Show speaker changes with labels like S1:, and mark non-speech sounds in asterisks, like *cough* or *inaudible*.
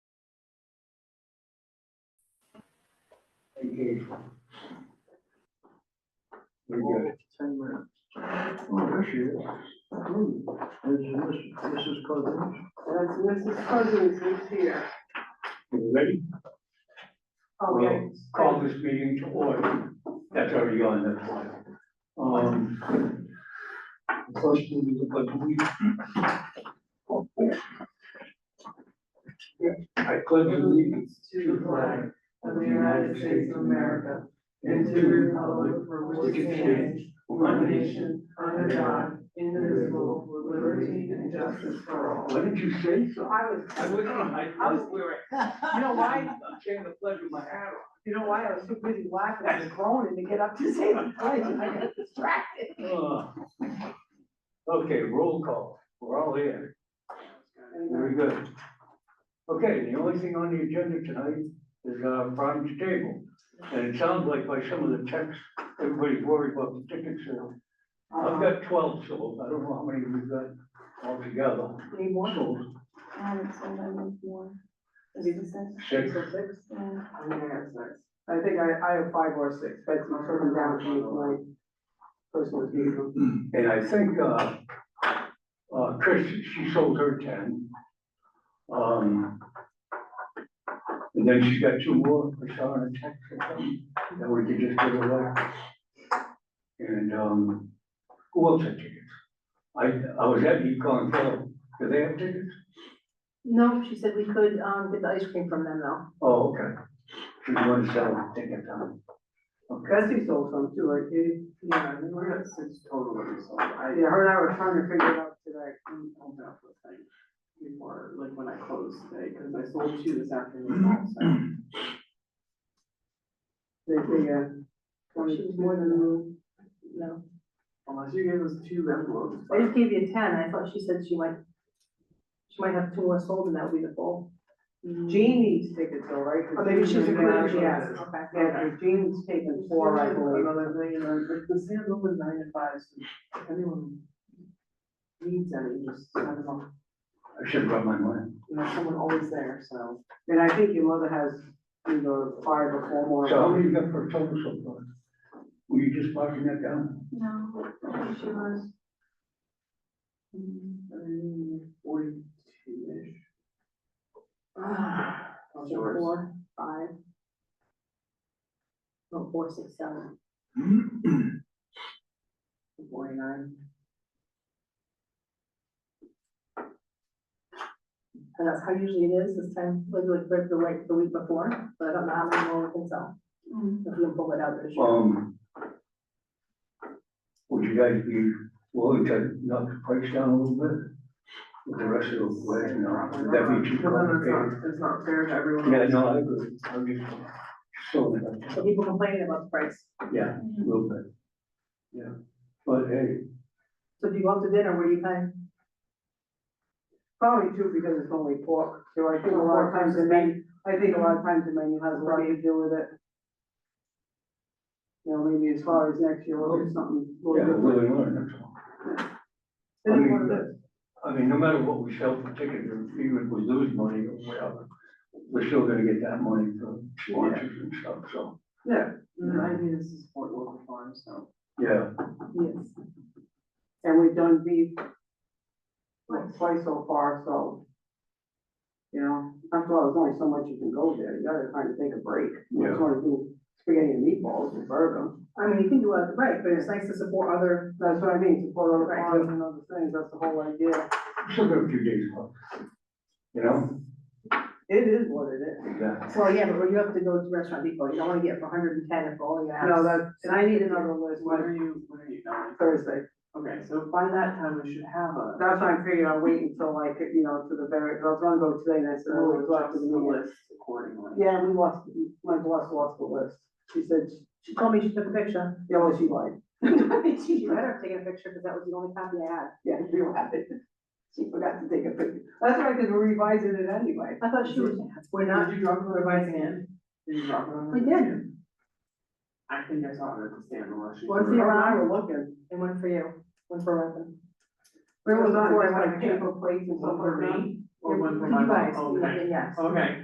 S1: engagement. We're good.
S2: Ten minutes. Oh, there she is. Ooh, This is Miss- Mrs. Cousins.
S3: That's Mrs. Cousins who's here.
S1: You ready?
S3: Oh,
S1: We'll
S3: yes.
S1: Call this meeting to order. That's already on that slide. Um, first, we will put the week. I pledge allegiance
S3: To the flag of the United States of America and to the republic for which it stands, one nation, under God, indivisible, with liberty and justice for all.
S1: What did you say? So
S3: I was,
S1: I was, I
S3: I
S1: was,
S3: was wearing, you know why?
S1: I'm saying the pledge with my hat on.
S3: You know why? I was so busy laughing and groaning to get up to say the pledge and I got distracted.
S1: Uh, Okay, roll call, we're all here, very good. Okay, the only thing on the agenda tonight is uh Brian's table. And it sounds like by some of the texts, everybody's worried about the ticket sale. I've got twelve sold, I don't know how many we've got altogether.
S4: Need more?
S1: Sold
S4: I haven't sold I need more. Is
S3: Maybe
S4: it six?
S1: six,
S3: So six?
S4: Yeah.
S3: I'm gonna have six. I think I, I have five or six, but it's my first down from my personal view.
S1: and I think uh uh Chris, she sold her ten. Um. And then she's got two more, I saw in a text or something, that we could just give away. And, um, who else had tickets? I, I was at Econ Club, do they have tickets?
S4: No, she said we could, um, get the ice cream from them though.
S1: Oh, okay. She's going to sell a ticket, um,
S3: Bessie sold some too, like, it, yeah, we were at six total of them, so I. Yeah, her and I were trying to figure it out today, I couldn't hold up with things before, like when I closed today, because I sold two this afternoon also. They, they, uh.
S4: She was more than, no.
S3: Unless you gave us two envelopes.
S4: I just gave you ten. I thought she said she might, she might have two more sold and that would be the full.
S3: Jean needs tickets though, right? 'Cause
S4: Oh, maybe she's a
S3: Jean-
S4: good
S3: Yeah,
S4: idea. Okay.
S3: yeah, and Jean's taken four, I believe.
S5: Another thing, and then if the sand opens nine to five, so if anyone needs any, just send them up.
S1: I should rub my money.
S5: You know, someone always there, so.
S3: And I think your mother has either five or four more.
S1: So how many you got for total so far? Were you just marking that down?
S4: No, she was.
S5: Forty-two-ish.
S4: ah,
S5: How's
S4: so
S5: yours?
S4: Four, five. No, four, six, seven.
S5: Forty-nine.
S4: And that's how usually it is this time, like, like, like the week, the week before, but I don't know how many more we can sell. If we can pull it out this year.
S1: Um. Would you guys be willing to knock the price down a little bit? With the rest of the way, no, would that be too
S5: No, no, it's
S1: complicated?
S5: not, it's not fair to everyone.
S1: Yeah, no, I agree, I'm just, so,
S4: So people complaining about the price.
S1: yeah, a little bit. Yeah, but hey,
S4: So if you go out to dinner, where do you pay?
S3: Probably two because it's only pork, so I think a lot of times the menu, I think a lot of times the menu has a lot to do with it. You know, maybe as far as next year, we'll do something. a
S1: yeah,
S3: little different.
S1: willing, willing, that's all. I
S3: Then
S1: mean,
S3: one of the-
S1: I mean, no matter what we sell for tickets, even if we lose money or whatever, we're still gonna get that money for sponsors and stuff, so,
S5: Yeah, the idea is to support local farms, so.
S1: yeah.
S4: Yes.
S3: And we've done beef like twice so far, so. You know, after all, there's only so much you can go there, you gotta kind of take a break. You
S1: Yeah.
S3: just wanna do spaghetti and meatballs and burger.
S4: I mean, you can do it, right, but it's nice to support other,
S3: That's what I mean, support other
S4: Right.
S3: farms and other things, that's the whole idea.
S1: Still got a few days left, you know?
S3: It is what it is.
S1: Yeah.
S4: well, yeah, but when you have to go to Restaurant Depot, you don't wanna get it for hundred and ten if only you have. *laughs*
S3: No, that's, and I need another list
S5: When
S3: by
S5: are you, when are you going?
S3: Thursday.
S5: Okay, so by that time, we should have a.
S3: That's why I'm figuring I'm waiting until like, you know, to the very, I was gonna go today and I said, oh,
S5: we'll
S3: it's up to
S5: adjust the
S3: the
S5: list accordingly.
S3: Yeah, we lost, my boss lost the list. She said,
S4: She told me she took a picture.
S3: yeah, well, she lied.
S4: She better have taken a picture, cause that was the only copy I had.
S3: Yeah, we will have it. She forgot to take a picture. That's right, because we're revising it anyway.
S4: I thought she was, we're not
S5: Did you drop it on
S4: revising
S5: the-
S4: it.
S5: Did you drop it on?
S4: We
S5: the-
S4: did.
S5: I think I saw it at the stand unless you.
S4: What's
S3: Her
S4: the-
S3: and I were looking.
S4: And one for you, one for Robin.
S3: Where was
S4: Before I
S3: on,
S4: went
S3: like
S4: to-
S3: paper plates and stuff
S5: One for
S3: like that.
S5: me or one for
S4: You
S5: my
S4: guys,
S5: mom? Okay.
S4: yes.
S5: Okay.